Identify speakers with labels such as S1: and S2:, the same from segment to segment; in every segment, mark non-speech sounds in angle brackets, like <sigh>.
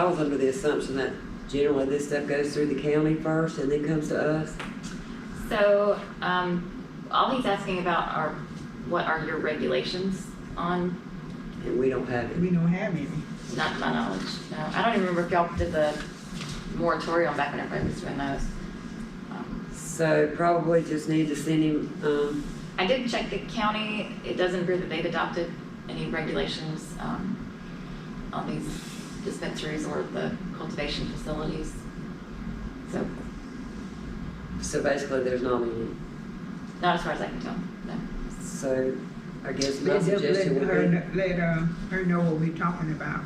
S1: I was under the assumption that generally this stuff goes through the county first and then comes to us.
S2: So, um, all he's asking about are, what are your regulations on,
S1: And we don't have it.
S3: We don't have any.
S2: not to my knowledge, no, I don't even remember if y'all did the moratorium back when everybody was doing those. Um,
S1: So probably just need to send him, um,
S2: I did check the county, it doesn't appear that they've adopted any regulations, um, on these dispensaries or the cultivation facilities. So,
S1: so basically there's not any.
S2: not as far as I can tell, no.
S1: So I guess my
S3: Let's just let
S1: suggestion
S3: her,
S1: would be,
S3: kn- let, uh, her know what we're talking about.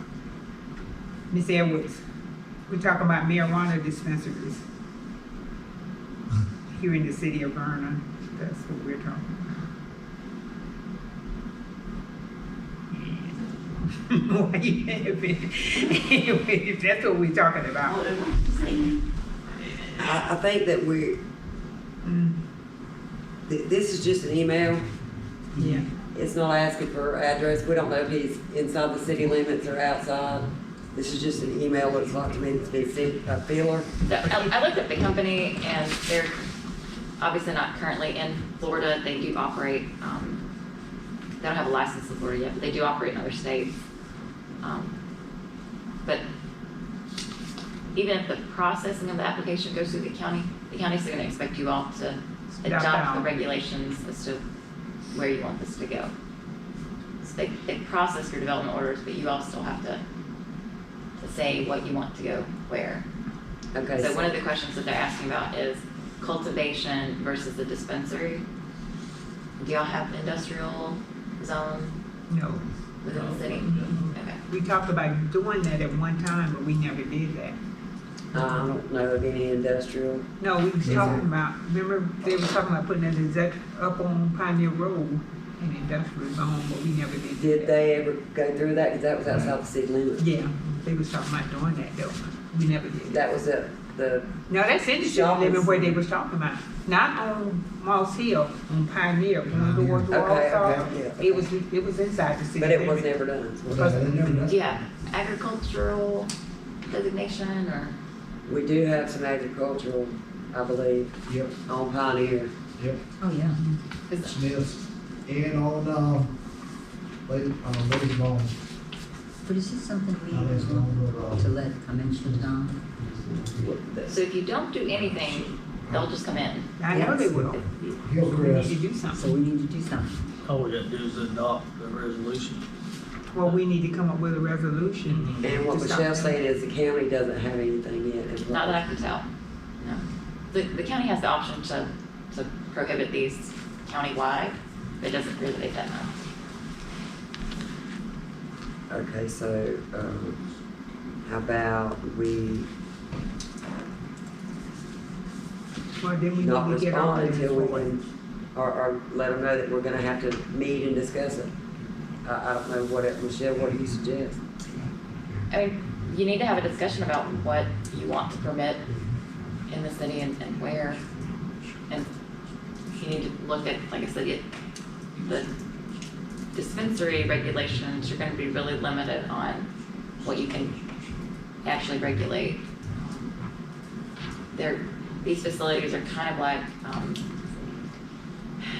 S3: Miss Edwards, we're talking about marijuana dispensaries here in the city of Vernon. That's what we're <laughs> talking about. Why you laughing? <laughs> If That's what we're talking about.
S1: I, I think that we,
S3: Mm,
S1: th- this is just an email.
S3: Yeah.
S1: It's not asking for address. We don't know if he's inside the city limits or outside. This is just an email, what it's like to me, it's been sent by Feeler.
S2: So I I looked at the company and they're obviously not currently in Florida. They do operate, um, they don't have a license in Florida yet, but they do operate in other states. Um, But even if the processing of the application goes through the county, the county's still gonna expect you all to adopt the
S3: out.
S2: regulations as to where you want this to go. So they, they process your development orders, but you all still have to, to say what you want to go where.
S1: Okay,
S2: So
S1: so
S2: one of the questions that they're asking about is cultivation versus the dispensary. Do y'all have industrial zone
S3: No,
S2: within the city? Okay,
S3: we talked about doing that at one time, but we never did that.
S1: I don't know of any industrial.
S3: No, we was talking about, remember, they were talking about putting that exec up on Pioneer Road in industrial zone, but we never did.
S1: Did
S3: that.
S1: they ever go through that? Because that was outside the city limits.
S3: Yeah, they was talking about doing that though, we never did that.
S1: That was at the,
S3: No, that's industry
S1: Y'all was-
S3: living where they was talking about, not on Moss Hill, on Pioneer, when we were
S1: Okay, okay,
S3: Warsaw.
S1: yeah.
S3: It was, it was inside the city.
S1: but it was
S3: limits.
S1: never done.
S2: do you have agricultural designation or?
S1: We do have some agricultural, I believe,
S4: Yep,
S1: on Pioneer.
S4: yep,
S2: Oh, yeah. Cause
S4: Smith's and on, um, late, um, late long,
S5: But is this something we
S4: not as
S5: want
S4: long, but,
S5: to
S4: um,
S5: let conventions on?
S2: So if you don't do anything, they'll just come in.
S3: I know they
S5: Yes.
S3: will, we need to
S4: Hillcrest,
S3: do
S5: So
S3: something,
S5: we need to do something.
S6: All we gotta do is adopt the resolution.
S3: well, we need to come up with a resolution.
S1: And what
S3: to stop
S1: Michelle's
S3: that.
S1: saying is the county doesn't have anything yet. as well.
S2: Not that I can tell, no. The, the county has the option to, to prohibit these countywide, but it doesn't appear that they've done that.
S1: Okay, so, um, how about we
S3: Well, then we need
S1: not
S3: to get all
S1: respond
S3: of
S1: until we
S3: them.
S1: can, or, or let them know that we're gonna have to meet and discuss it? I, I don't know what, it- Michelle, what do you suggest?
S2: I mean, you need to have a discussion about what you want to permit in the city and, and where. And you need to look at, like I said, it, the dispensary regulations, you're gonna be really limited on what you can actually regulate. There, these facilities are kind of like, um,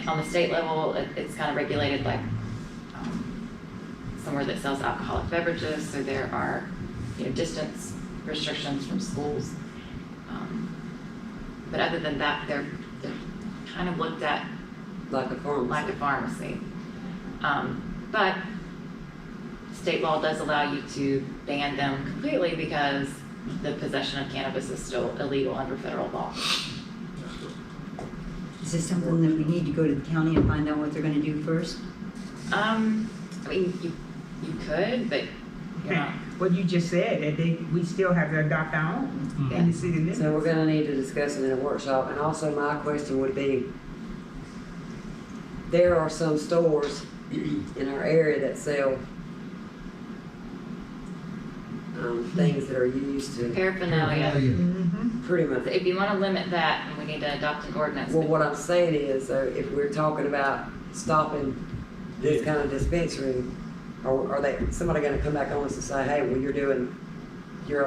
S2: on the state level, it, it's kind of regulated like, um, somewhere that sells alcoholic beverages, so there are, you know, distance restrictions from schools. Um, But other than that, they're, they're kind of looked at
S1: Like a farm?
S2: like a pharmacy. Um, but state law does allow you to ban them completely because the possession of cannabis is still illegal under federal law.
S5: Is this something that we need to go to the county and find out what they're gonna do first?
S2: Um, I mean, you, you could, but you're not,
S3: What you just said, that they, we still have to adopt our own in the city limits.
S1: So we're gonna need to discuss it in a workshop, and also my question would be, there are some stores in our area that sell um, things that are used to
S2: paraphernalia.
S3: Mhm.
S1: pretty much
S2: So If you wanna limit that, then we need to adopt an ordinance.
S1: Well, what I'm saying is, though, if we're talking about stopping this kind of dispensary, are, are they, somebody gonna come back on us and say, hey, well, you're doing